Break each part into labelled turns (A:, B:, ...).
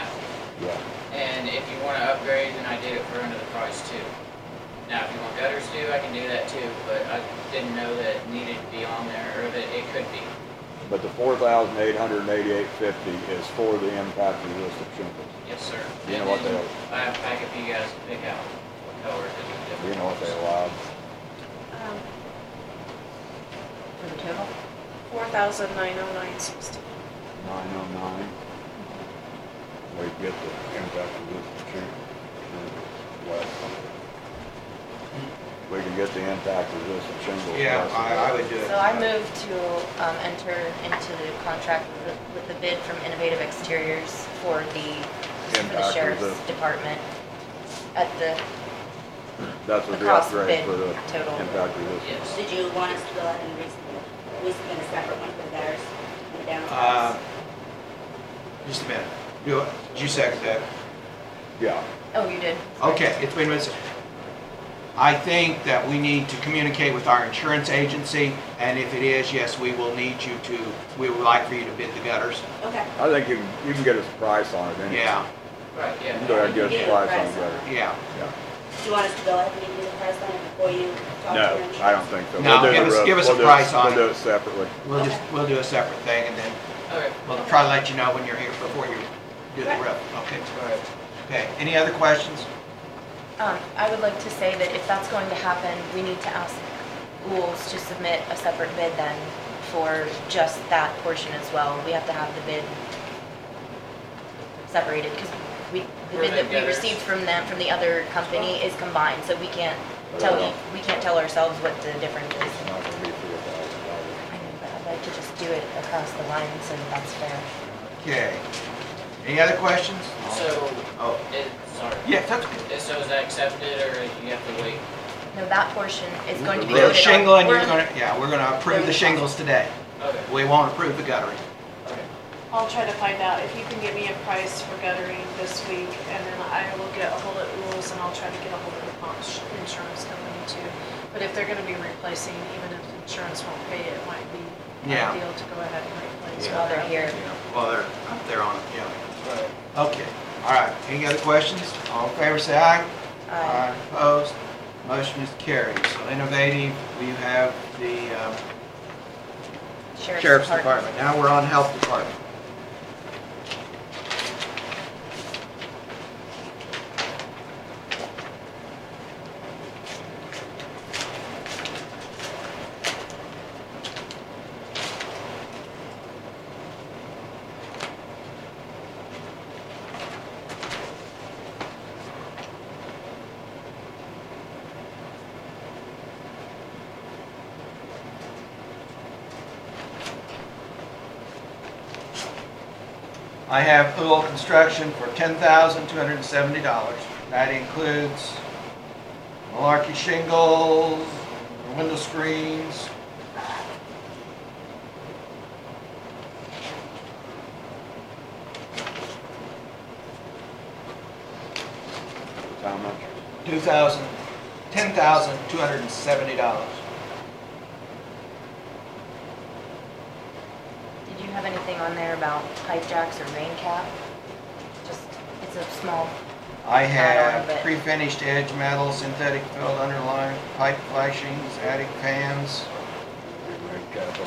A: Yeah.
B: And if you wanna upgrade, then I did it for under the price too. Now, if you want gutters too, I can do that too, but I didn't know that it needed to be on there, or that it could be.
A: But the four thousand eight hundred and eighty-eight fifty is for the impact of list of shingles.
B: Yes, sir.
A: You know what they-
B: I have a packet for you guys to pick out what color is different.
A: Do you know what they allowed?
C: Um,
D: For the total?
C: four thousand nine oh nine sixty.
A: Nine oh nine. We get the impact of list of shingles. Well, We can get the impact of list of shingles.
E: Yeah, I, I would do it.
D: So I move to um, enter into the contract with the- with the bid from Innovative Exteriors for the, for
A: Impact
D: the
A: of
D: sheriff's
A: the-
D: department at the,
A: That's what the
D: the cost
A: upgrade
D: bid
A: for the
D: total.
A: impact of list.
B: Yes.
F: Did you want us to go ahead and re- we spend a separate one for theirs and down?
E: Uh, Just a minute. Do, did you second that?
A: Yeah,
D: oh, you did? Sorry.
E: Okay, it's been missed. I think that we need to communicate with our insurance agency, and if it is, yes, we will need you to, we would like for you to bid the gutters.
F: Okay.
A: I think you, can- you can get us a price on it anyway.
E: Yeah,
B: Right,
A: You
B: yeah.
A: can go ahead and get us a
F: Yeah,
A: price on
F: price
A: it,
F: on
A: brother.
F: it.
E: yeah.
A: yeah.
F: Do you want us to go ahead and do the price on it before you talk to them?
A: No, I don't think so. We'll
E: No,
A: do
E: give
A: the
E: us-
A: roof.
E: give us a
A: We'll do
E: price on
A: We'll
E: it.
A: do it separately.
E: We'll just, we'll do a separate thing, and then
B: Okay,
E: we'll try to let you know when you're here before you do the roof. Okay,
B: all right.
E: okay. Any other questions?
D: Um, I would like to say that if that's going to happen, we need to ask Rules to submit a separate bid then for just that portion as well. We have to have the bid separated because we, the
B: Were
D: bid
B: they
D: that we
B: gutters?
D: received from them, from the other company is combined, so we can't tell,
A: Yeah.
D: you- we can't tell ourselves what the difference is.
A: It's not gonna be $4,000.
D: I mean, but I'd like to just do it across the line so that that's fair.
E: Okay. Any other questions?
B: So,
E: Oh,
B: it, sorry.
E: yes, that's good.
B: Is- So is that accepted, or you have to wait?
D: No, that portion is going to be
A: Yeah,
E: The
D: voted on.
E: shingle, and you're
D: We're-
E: gonna, yeah, we're gonna approve the shingles today.
B: Okay,
E: We won't approve the guttering.
B: okay.
C: I'll try to find out if you can get me a price for guttering this week, and then I will get a hold of Rules, and I'll try to get a hold of the Ponch Insurance Company too. But if they're gonna be replacing, even if the insurance won't pay, it might be
E: Yeah.
C: ideal to go ahead and replace.
E: Yeah.
D: While they're here.
E: Well, they're, up there on, it, yeah.
B: Right.
E: Okay, all right. Any other questions? All in favor, say aye.
D: Uh,
E: Opposed? Motion is carried. So innovative, we have the um, Sheriff's Department. Now we're on Health Department. I have Ool Construction for ten thousand two hundred and seventy dollars. That includes malarkey shingles, window screens.
A: It's How much?
E: Two thousand, ten thousand two hundred and seventy dollars.
D: Did you have anything on there about pipe jacks or rain cap? Just, it's a small, I
E: I
D: don't,
E: have
D: but-
E: pre-finished edge metal, synthetic filled underlying, pipe flashings, attic fans,
A: We made capital.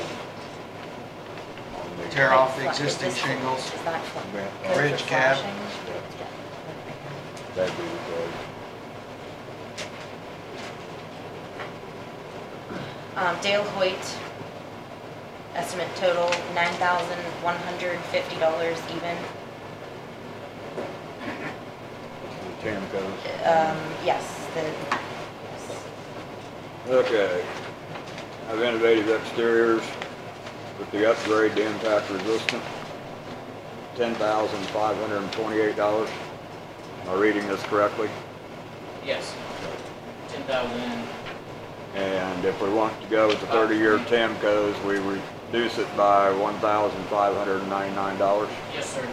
A: on the-
E: Tear off the
D: Like flat-
E: existing
D: this-
E: shingles.
D: is that flat?
A: Yeah,
D: those are
E: Ridge cap.
D: flashing?
A: yeah,
D: Yeah.
A: That'd be the price.
D: Um, Dale Hoyt, estimate total nine thousand one hundred fifty dollars even.
A: The ten goes.
D: Um, yes, the, yes.
A: Okay. I've innovative exteriors with the upgrade to impact resistant. Ten thousand five hundred and twenty-eight dollars. Am I reading this correctly?
B: Yes. Ten thousand,
A: And if we want to go with the thirty-year TAMCOs, we reduce it by one thousand five hundred and ninety-nine dollars.
B: yes, sir.